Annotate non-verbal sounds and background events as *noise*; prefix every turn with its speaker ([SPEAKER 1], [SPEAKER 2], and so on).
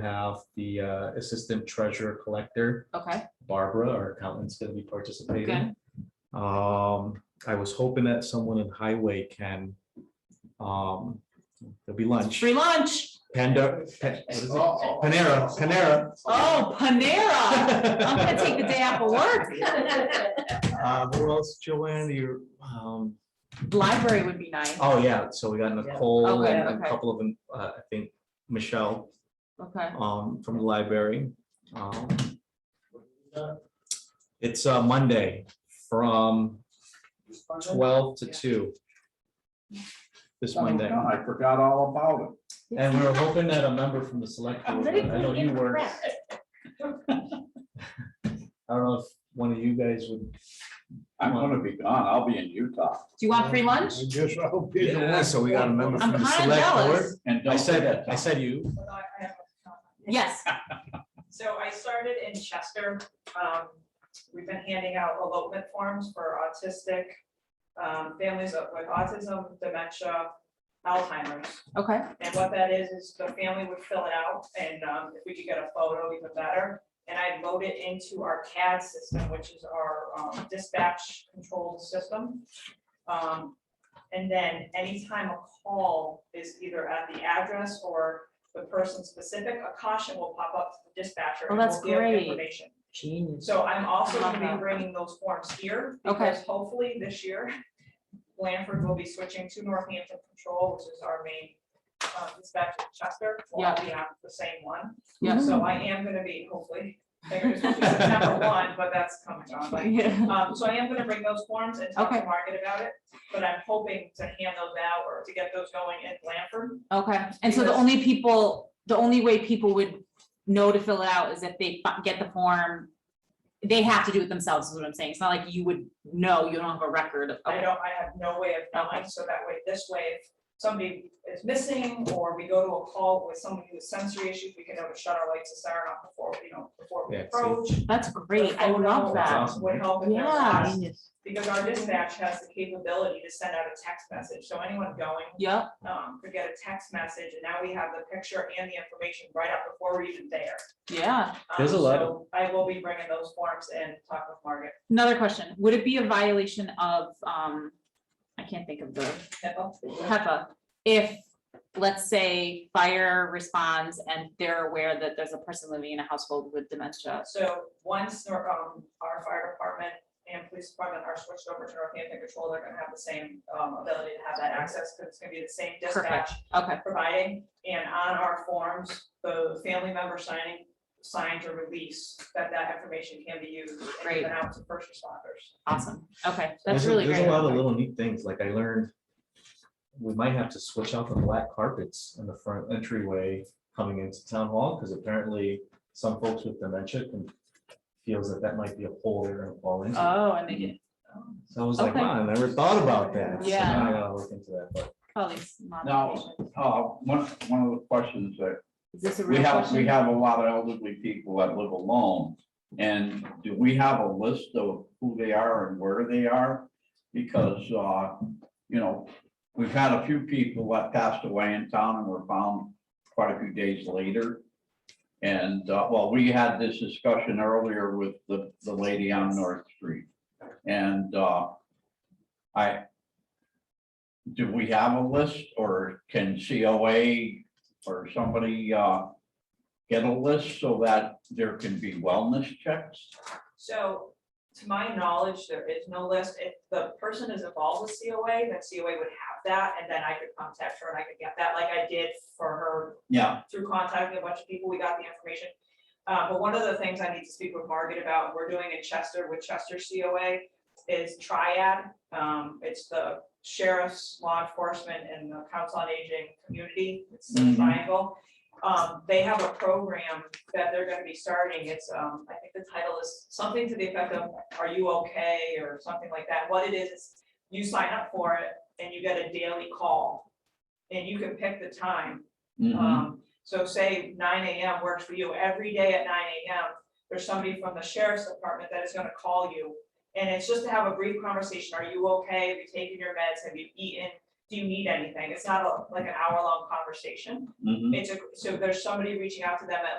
[SPEAKER 1] have the uh, Assistant Treasurer Collector,
[SPEAKER 2] Okay,
[SPEAKER 1] Barbara, our accountant's gonna be participating.
[SPEAKER 2] good.
[SPEAKER 1] Um, I was hoping that someone in Highway can, um, there'll be lunch,
[SPEAKER 2] Free lunch.
[SPEAKER 1] Panda, Pa- what is it? Panera, Panera.
[SPEAKER 2] Oh, Panera. I'm
[SPEAKER 1] *laughs*
[SPEAKER 2] gonna take the day off of work. *laughs*
[SPEAKER 1] Uh, who else, Joanne, you, um,
[SPEAKER 2] Library would be nice.
[SPEAKER 1] oh, yeah, so we got Nicole
[SPEAKER 2] Okay,
[SPEAKER 1] and a
[SPEAKER 2] okay.
[SPEAKER 1] couple of them, uh, I think, Michelle,
[SPEAKER 2] Okay.
[SPEAKER 1] um, from the library. Um, It's, uh, Monday from twelve to two. This
[SPEAKER 2] Oh
[SPEAKER 1] Monday,
[SPEAKER 3] I forgot all about it.
[SPEAKER 1] and we were hoping that a member from the select board, but I know you were, I don't know if one of you guys would.
[SPEAKER 3] I'm gonna be gone. I'll be in Utah.
[SPEAKER 2] Do you want free lunch?
[SPEAKER 3] I guess I'll be there.
[SPEAKER 1] Yeah, so we got a member
[SPEAKER 2] I'm
[SPEAKER 1] from the
[SPEAKER 2] kind of
[SPEAKER 1] select board.
[SPEAKER 2] jealous.
[SPEAKER 3] And don't
[SPEAKER 1] I said
[SPEAKER 3] forget-
[SPEAKER 1] that, I said you,
[SPEAKER 4] But I- I have a comment.
[SPEAKER 2] Yes.
[SPEAKER 4] So I started in Chester. Um, We've been handing out elopement forms for autistic um, families with autism, dementia, Alzheimer's.
[SPEAKER 2] Okay.
[SPEAKER 4] And what that is, is the family would fill it out and um, if we could get a photo, even better. And I load it into our CAD system, which is our um, dispatch control system. Um, And then anytime a call is either at the address or the person specific, a caution will pop up to the dispatcher.
[SPEAKER 2] Oh,
[SPEAKER 4] and
[SPEAKER 2] that's
[SPEAKER 4] we'll give
[SPEAKER 2] great.
[SPEAKER 4] information.
[SPEAKER 2] Genius.
[SPEAKER 4] So I'm also gonna
[SPEAKER 2] Love that.
[SPEAKER 4] be bringing those forms here,
[SPEAKER 2] Okay.
[SPEAKER 4] because hopefully this year, Blanford will be switching to Northampton Control, which is our main uh, dispatch in Chester. We'll all be on the same one.
[SPEAKER 2] Yeah.
[SPEAKER 4] So I am gonna be, hopefully,
[SPEAKER 2] *laughs*
[SPEAKER 4] there's September one, but that's coming on, like,
[SPEAKER 1] Mm-hmm.
[SPEAKER 2] Yeah.
[SPEAKER 4] um, so I am gonna bring those forms and talk to
[SPEAKER 2] Okay.
[SPEAKER 4] Margaret about it, but I'm hoping to hand those out or to get those going in Blanford.
[SPEAKER 2] *laughs* Okay. And so the
[SPEAKER 4] Because-
[SPEAKER 2] only people, the only way people would know to fill it out is if they fi- get the form. They have to do it themselves, is what I'm saying. It's not like you would know, you don't have a record of.
[SPEAKER 4] I don't, I have no way of knowing, so that way, this way, if somebody is missing, or we go to a call with somebody with sensory issues, we can know to shut our lights and siren off before, you know, before we
[SPEAKER 1] Yeah, see.
[SPEAKER 4] approach.
[SPEAKER 2] That's great.
[SPEAKER 4] The
[SPEAKER 2] I
[SPEAKER 4] phone
[SPEAKER 2] love
[SPEAKER 4] number
[SPEAKER 2] that.
[SPEAKER 1] That's awesome.
[SPEAKER 4] Would help if there's
[SPEAKER 2] Yeah.
[SPEAKER 4] us, because our dispatch has the capability to send out a text message, so anyone going,
[SPEAKER 2] Yep.
[SPEAKER 4] um, could get a text message, and now we have the picture and the information right up before we're even there.
[SPEAKER 2] Yeah.
[SPEAKER 4] Um,
[SPEAKER 1] There's a lot of-
[SPEAKER 4] so I will be bringing those forms and talk with Margaret.
[SPEAKER 2] Another question. Would it be a violation of, um, I can't think of the HEPA, if, let's say, fire responds and they're aware that there's a person living in a household with dementia.
[SPEAKER 4] So once our, um, our fire department and police department are switched over to Northampton Control, they're gonna have the same, um, ability to have that access, because it's gonna be the same dispatch
[SPEAKER 2] Okay,
[SPEAKER 4] providing. And on our forms, the family member signing, signs or release, that that information can be used and
[SPEAKER 2] Great.
[SPEAKER 4] given out to first responders.
[SPEAKER 2] awesome. Okay, that's
[SPEAKER 1] there's, a-
[SPEAKER 2] really
[SPEAKER 1] there's
[SPEAKER 2] great.
[SPEAKER 1] a lot of little neat things, like I learned. We might have to switch out the black carpets in the front entryway coming into town hall, because apparently some folks with dementia can. Feels that that might be a hole they're gonna fall into.
[SPEAKER 2] Oh, and they get,
[SPEAKER 1] So I was like,
[SPEAKER 2] Okay.
[SPEAKER 1] wow, I never thought about that. So
[SPEAKER 2] Yeah.
[SPEAKER 1] now I gotta look into that, but
[SPEAKER 2] probably.
[SPEAKER 3] Now, uh, one, one of the questions that
[SPEAKER 2] Is this a
[SPEAKER 3] we
[SPEAKER 2] real
[SPEAKER 3] have, we
[SPEAKER 2] question?
[SPEAKER 3] have a lot of elderly people that live alone. And do we have a list of who they are and where they are? Because, uh, you know, we've had a few people that passed away in town and were found quite a few days later. And, uh, well, we had this discussion earlier with the, the lady on North Street. And, uh, I, do we have a list or can COA or somebody, uh, get a list so that there can be wellness checks?
[SPEAKER 4] So to my knowledge, there is no list. If the person is involved with COA, then COA would have that, and then I could contact her and I could get that, like I did for her
[SPEAKER 3] Yeah,
[SPEAKER 4] through contacting a bunch of people, we got the information. Uh, but one of the things I need to speak with Margaret about, we're doing in Chester with Chester COA is triad. Um, it's the sheriff's, law enforcement and the council on aging community. It's the
[SPEAKER 3] Mhm.
[SPEAKER 4] triangle. Um, they have a program that they're gonna be starting. It's, um, I think the title is something to the effect of, are you okay? Or something like that. What it is, is you sign up for it and you get a daily call. And you can pick the time
[SPEAKER 3] mhm,
[SPEAKER 4] um, so say nine AM works for you, every day at nine AM, there's somebody from the sheriff's department that is gonna call you. And it's just to have a brief conversation, are you okay, have you taken your meds, have you eaten, do you need anything? It's not a- like an hour-long conversation.
[SPEAKER 3] mhm.
[SPEAKER 4] It's a, so there's somebody reaching out to them at